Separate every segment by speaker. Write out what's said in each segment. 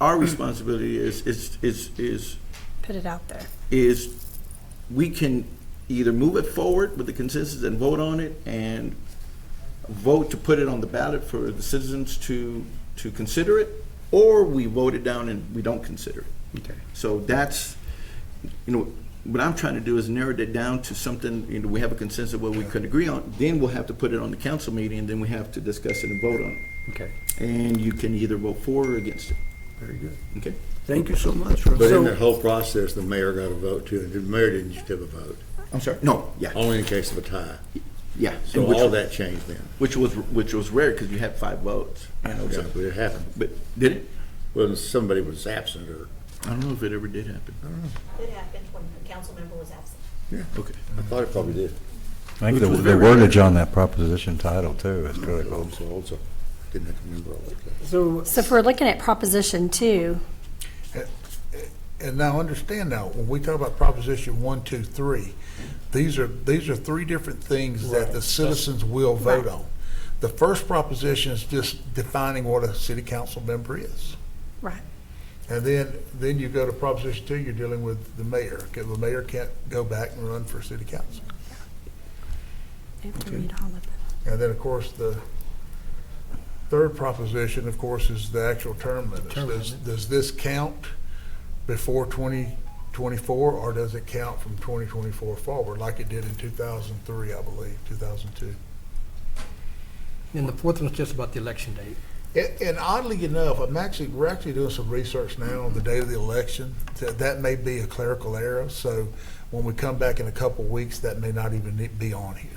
Speaker 1: our responsibility is, is, is, is,
Speaker 2: Put it out there.
Speaker 1: is we can either move it forward with the consensus and vote on it and vote to put it on the ballot for the citizens to, to consider it, or we vote it down and we don't consider it.
Speaker 3: Okay.
Speaker 1: So that's, you know, what I'm trying to do is narrow it down to something, you know, we have a consensus of what we could agree on, then we'll have to put it on the council meeting, and then we have to discuss it and vote on it.
Speaker 3: Okay,
Speaker 1: And you can either vote for or against it,
Speaker 3: very good.
Speaker 1: okay?
Speaker 3: Thank you so much. Russ.
Speaker 4: But in
Speaker 3: So,
Speaker 4: that whole process, the mayor got a vote too, and the mayor didn't just have a vote,
Speaker 1: I'm sorry, no,
Speaker 3: Oh.
Speaker 1: yeah,
Speaker 4: only in case of a tie.
Speaker 1: yeah. and
Speaker 4: So
Speaker 1: which-
Speaker 4: all that changed then.
Speaker 1: Which was, which was rare, because you had five votes. you know, so-
Speaker 4: Exactly, it happened.
Speaker 1: But did it?
Speaker 4: Well, somebody was absent or,
Speaker 1: I don't know if it ever did happen.
Speaker 5: Oh,
Speaker 6: It happened when a council member was absent.
Speaker 1: Okay.
Speaker 4: I thought it probably did.
Speaker 7: I think
Speaker 1: Which
Speaker 7: the
Speaker 1: was
Speaker 7: the
Speaker 1: very good.
Speaker 7: wordage on that proposition title too is critical.
Speaker 4: So also, didn't have to remember all that.
Speaker 3: so,
Speaker 2: So if we're looking at Proposition Two,
Speaker 5: And now, understand now, when we talk about Proposition one, two, three, these are, these are three different things that the citizens will vote on. The first proposition is just defining what a city council member is.
Speaker 2: right,
Speaker 5: And then, then you go to Proposition two, you're dealing with the mayor. Okay, The mayor can't go back and run for city council.
Speaker 2: we have to read all of them.
Speaker 5: And then, of course, the third proposition, of course, is the actual term limits. Does, does this count before twenty twenty-four, or does it count from twenty twenty-four forward, like it did in two thousand three, I believe, two thousand two?
Speaker 3: and the fourth one's just about the election date.
Speaker 5: And, and oddly enough, I'm actually, we're actually doing some research now on the day of the election. That, that may be a clerical error, so when we come back in a couple of weeks, that may not even need- be on here.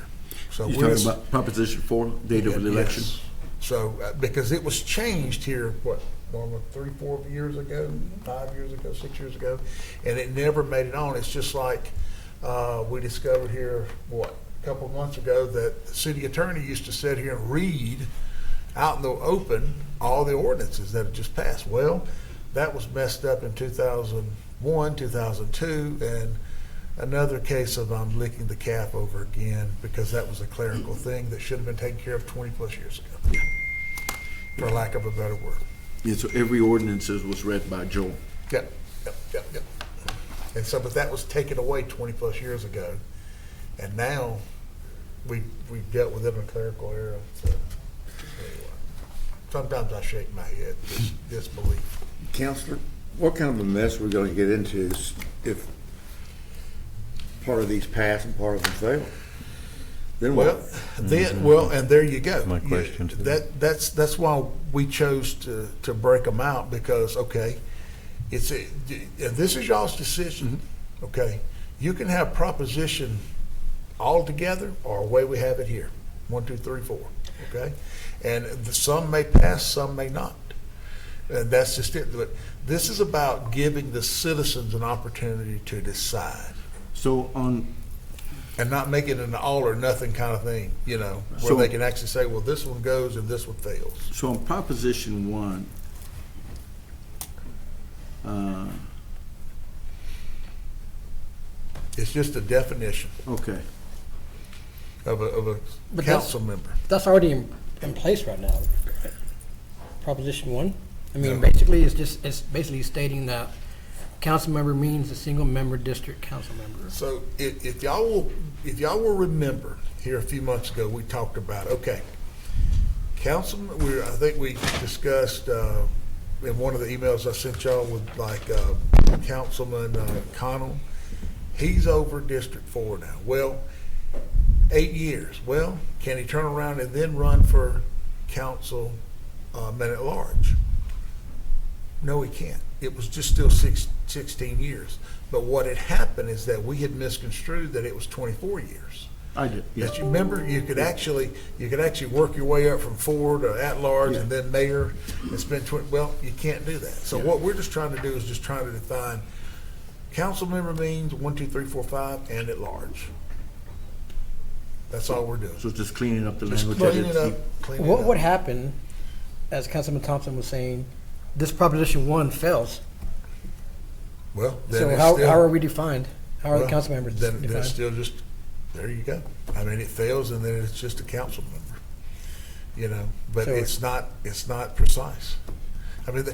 Speaker 1: You're
Speaker 5: So we're
Speaker 1: talking
Speaker 5: just-
Speaker 1: about Proposition Four, date of the
Speaker 5: Yes.
Speaker 1: election?
Speaker 5: So, uh, because it was changed here, what, Norma, three, four years ago, five years ago, six years ago, and it never made it on. It's just like, uh, we discovered here, what, a couple of months ago, that the city attorney used to sit here and read out in the open all the ordinances that had just passed. Well, that was messed up in two thousand one, two thousand two, and another case of I'm licking the calf over again because that was a clerical thing that should have been taken care of 20 plus years ago, for lack of a better word.
Speaker 1: Yeah, so every ordinance is- was read by Joel.
Speaker 5: Yep, yep, yep, yep. And so, but that was taken away 20 plus years ago, and now we we dealt with it in a clerical error. So, anyway. sometimes I shake my head dis- disbelief.
Speaker 4: Counselor, what kind of a mess we're gonna get into is if part of these pass and part of them fail? Then what?
Speaker 5: Well, then, well, and there you go.
Speaker 7: My
Speaker 5: You-
Speaker 7: question to
Speaker 5: That, that's, that's why we chose to, to break them out, because, okay, it's, a- and this is y'all's decision,
Speaker 7: Mm-hmm.
Speaker 5: okay? You can have proposition all together, or away we have it here, one, two, three, four, okay? And the- some may pass, some may not. And that's just it, but this is about giving the citizens an opportunity to decide
Speaker 1: So on,
Speaker 5: and not make it an all or nothing kind of thing, you know, where
Speaker 1: So-
Speaker 5: they can actually say, well, this one goes and this one fails.
Speaker 1: so on Proposition One, uh,
Speaker 5: It's just a definition
Speaker 1: okay,
Speaker 5: of a, of a
Speaker 3: But
Speaker 5: council member.
Speaker 3: That's already in, in place right now, Proposition One. I mean, basically, it's just, it's basically stating that council member means a single member district council member.
Speaker 5: So if, if y'all will, if y'all will remember, here a few months ago, we talked about, okay, council, we, I think we discussed, uh, in one of the emails I sent y'all with like, uh, Councilman uh, Connell, he's over District Four now. Well, eight years. Well, can he turn around and then run for council, uh, man at large? No, he can't. It was just still six, sixteen years. But what had happened is that we had misconstrued that it was twenty-four years.
Speaker 1: I did,
Speaker 5: That
Speaker 1: yes.
Speaker 5: you remember, you could actually, you could actually work your way up from four to at-large and then mayor. It's been twen, well, you can't do that. So what we're just trying to do is just trying to define council member means one, two, three, four, five, and at-large. That's all we're doing.
Speaker 1: So it's just cleaning up the
Speaker 5: Just
Speaker 1: language.
Speaker 5: clean it up, clean it
Speaker 3: What
Speaker 5: up.
Speaker 3: would happen, as Councilman Thompson was saying, this Proposition One fails?
Speaker 5: Well, then
Speaker 3: So
Speaker 5: it's
Speaker 3: how,
Speaker 5: still-
Speaker 3: how are we defined? How are the
Speaker 5: Well,
Speaker 3: council members
Speaker 5: Then, then it's
Speaker 3: defined?
Speaker 5: still just, there you go. I mean, it fails and then it's just a council member, you know, but
Speaker 3: So-
Speaker 5: it's not, it's not precise. I mean, the-